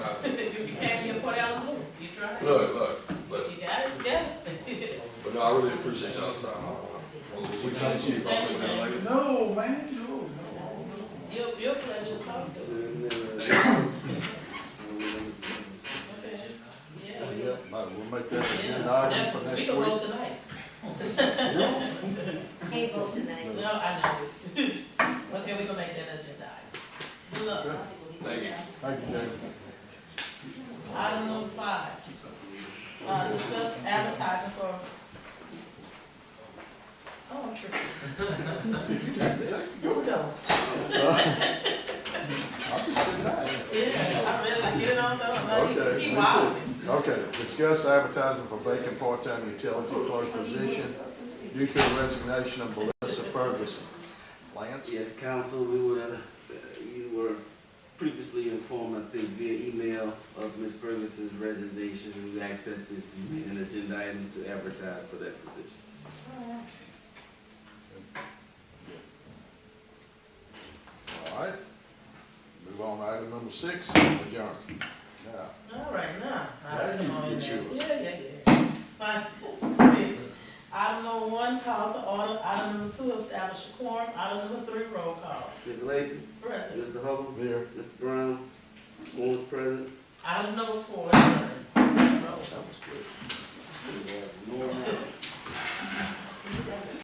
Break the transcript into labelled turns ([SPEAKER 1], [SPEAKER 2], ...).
[SPEAKER 1] present.
[SPEAKER 2] We thought you probably been like, no, man, no, no.
[SPEAKER 3] Your, your pleasure to talk to. Okay, yeah. we-
[SPEAKER 2] Yeah, might- we'll make that an
[SPEAKER 3] yeah,
[SPEAKER 2] agenda item for
[SPEAKER 3] that- We
[SPEAKER 2] next
[SPEAKER 3] can roll
[SPEAKER 2] week.
[SPEAKER 3] tonight.
[SPEAKER 4] Can't vote tonight.
[SPEAKER 3] No, I know. Okay, we gonna make that agenda item. Good luck.
[SPEAKER 4] Thank you.
[SPEAKER 2] Thank you, David.
[SPEAKER 3] Item number five. Uh, discuss advertising for. Oh, I'm tripping. Go, go.
[SPEAKER 2] I'll just sit back.
[SPEAKER 3] Yeah, I read, I get it on, though, I'm like,
[SPEAKER 2] Okay,
[SPEAKER 3] Uh, he-
[SPEAKER 2] me
[SPEAKER 3] he
[SPEAKER 2] too.
[SPEAKER 3] wilding.
[SPEAKER 2] Okay, discuss advertising for vacant part-time utility clerk position due to the resignation of Melissa Ferguson. Lance?
[SPEAKER 5] Yes, council, we were, uh, you were previously informed, I think via email, of Ms. Ferguson's resignation. We asked that this be made an agenda item to advertise for that position.
[SPEAKER 2] All right. Move on to item number six, adjourn. Now,
[SPEAKER 3] All right, now. All
[SPEAKER 2] Yeah,
[SPEAKER 3] right, come on in
[SPEAKER 2] get
[SPEAKER 3] there.
[SPEAKER 2] yours.
[SPEAKER 3] Yeah, yeah, yeah. Fine. Item number one, call to order, item number two, establish a quorum, item number three, roll call.
[SPEAKER 5] Ms. Lacy,
[SPEAKER 3] Present.
[SPEAKER 5] Mr. Hubble,
[SPEAKER 2] Here,
[SPEAKER 5] Mr. Brown, Mr. President.
[SPEAKER 3] Item number four, adjourned. Roll.
[SPEAKER 2] that was good.
[SPEAKER 5] we have no matter.